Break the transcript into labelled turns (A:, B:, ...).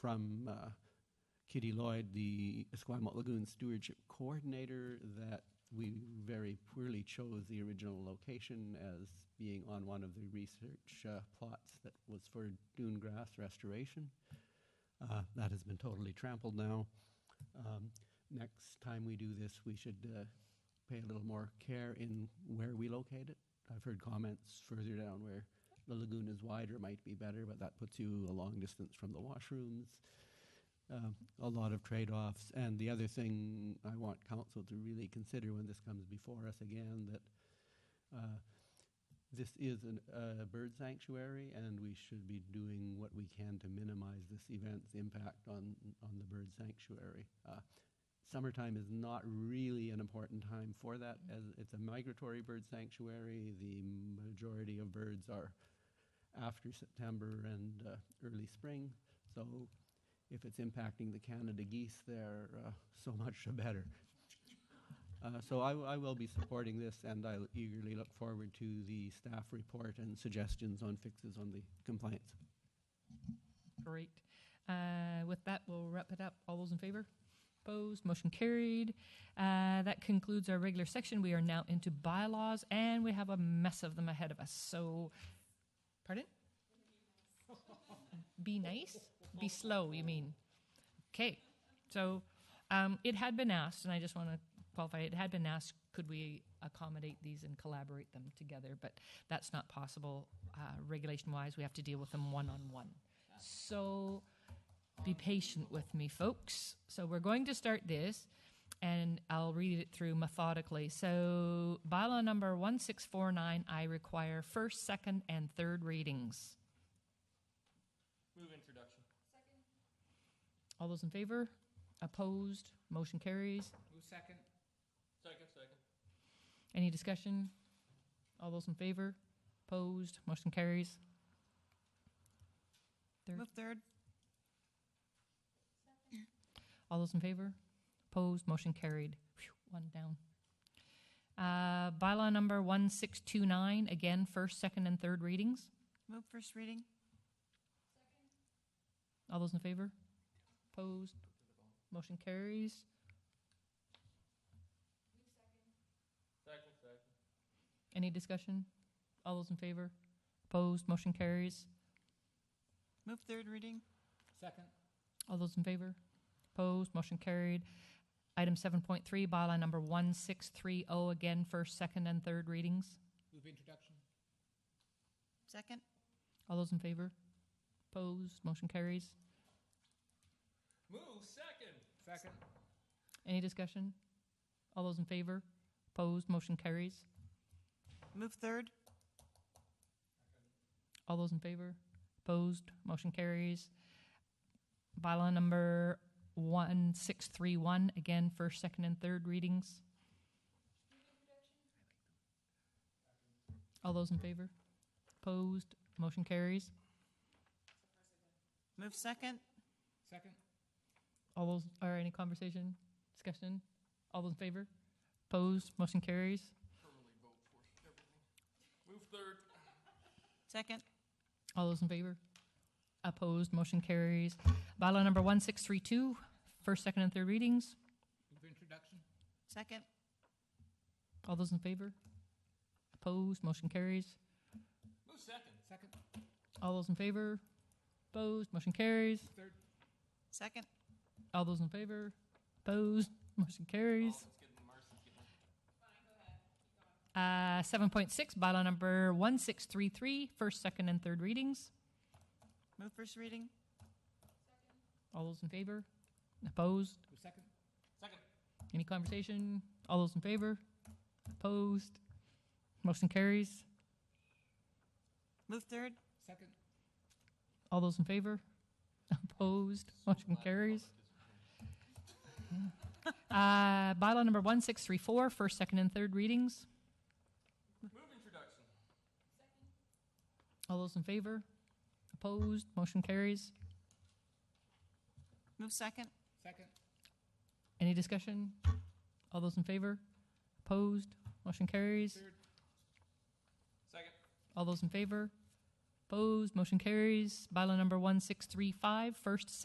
A: from uh, Kitty Lloyd, the Esquimalt Lagoon Stewardship Coordinator, that we very poorly chose the original location as being on one of the research uh, plots that was for dune grass restoration. Uh, That has been totally trampled now. Um, Next time we do this, we should uh, pay a little more care in where we locate it. I've heard comments further down where the lagoon is wider might be better, but that puts you a long distance from the washrooms um, a lot of trade offs. And the other thing I want council to really consider when this comes before us again that uh, this is an, a bird sanctuary, and we should be doing what we can to minimize this event's impact on, on the bird sanctuary. Uh, summertime is not really an important time for that, as it's a migratory bird sanctuary. The majority of birds are after September and uh, early spring. So if it's impacting the Canada geese there, uh, so much the better. Uh, So I I will be supporting this, and I eagerly look forward to the staff report and suggestions on fixes on the complaints.
B: Great. Uh, with that, we'll wrap it up. All those in favor? Opposed? Motion carried. Uh, that concludes our regular section. We are now into bylaws, and we have a mess of them ahead of us. So, pardon? Be nice? Be slow, you mean? Okay. So, um, it had been asked, and I just want to qualify it had been asked could we accommodate these and collaborate them together, but that's not possible uh, regulation wise. We have to deal with them one on one. So be patient with me, folks. So we're going to start this, and I'll read it through methodically. So, bylaw number 1649, I require first, second, and third readings.
C: Move introduction.
B: All those in favor? Opposed? Motion carries.
D: Move second.
C: Second, second.
B: Any discussion? All those in favor? Opposed? Motion carries. Third.
E: Move third.
B: All those in favor? Opposed? Motion carried. Phew, One down. Uh, Bylaw number 1629, again, first, second, and third readings.
E: Move first reading.
B: All those in favor? Opposed? Motion carries.
C: Second, second.
B: Any discussion? All those in favor? Opposed? Motion carries.
E: Move third reading.
D: Second.
B: All those in favor? Opposed? Motion carried. Item 7.3, bylaw number 1630, oh, again, first, second, and third readings.
D: Move introduction.
E: Second.
B: All those in favor? Opposed? Motion carries.
C: Move second.
D: Second.
B: Any discussion? All those in favor? Opposed? Motion carries.
E: Move third.
B: All those in favor? Opposed? Motion carries. Bylaw number 1631, again, first, second, and third readings. All those in favor? Opposed? Motion carries.
E: Move second.
D: Second.
B: All those, or any conversation, discussion? All those in favor? Opposed? Motion carries.
C: Totally vote for everything. Move third.
E: Second.
B: All those in favor? Opposed, motion carries. Bylaw number 1632, first, second, and third readings.
D: Move introduction.
E: Second.
B: All those in favor? Opposed, motion carries.
C: Move second.
D: Second.
B: All those in favor? Opposed, motion carries.
D: Third.
C: Oh,
E: Second.
B: All those in favor? Opposed, motion carries.
C: Let's get Marcy's getting.
B: Uh, 7.6, bylaw number 1633, first, second, and third readings.
E: Move first reading.
B: All those in favor? Opposed?
D: Move second.
C: Second.
B: Any conversation? All those in favor? Opposed? Motion carries.
E: Move third.
D: Second.
B: All those in favor? Opposed? Motion carries. Uh, Bylaw number 1634, first, second, and third readings.
C: Move introduction.
B: All those in favor? Opposed? Motion carries.
E: Move second.
D: Second.
B: Any discussion? All those in favor? Opposed? Motion carries.
D: Third.
C: Second.
B: All those in favor? Opposed? Motion carries. Bylaw number 1635, first,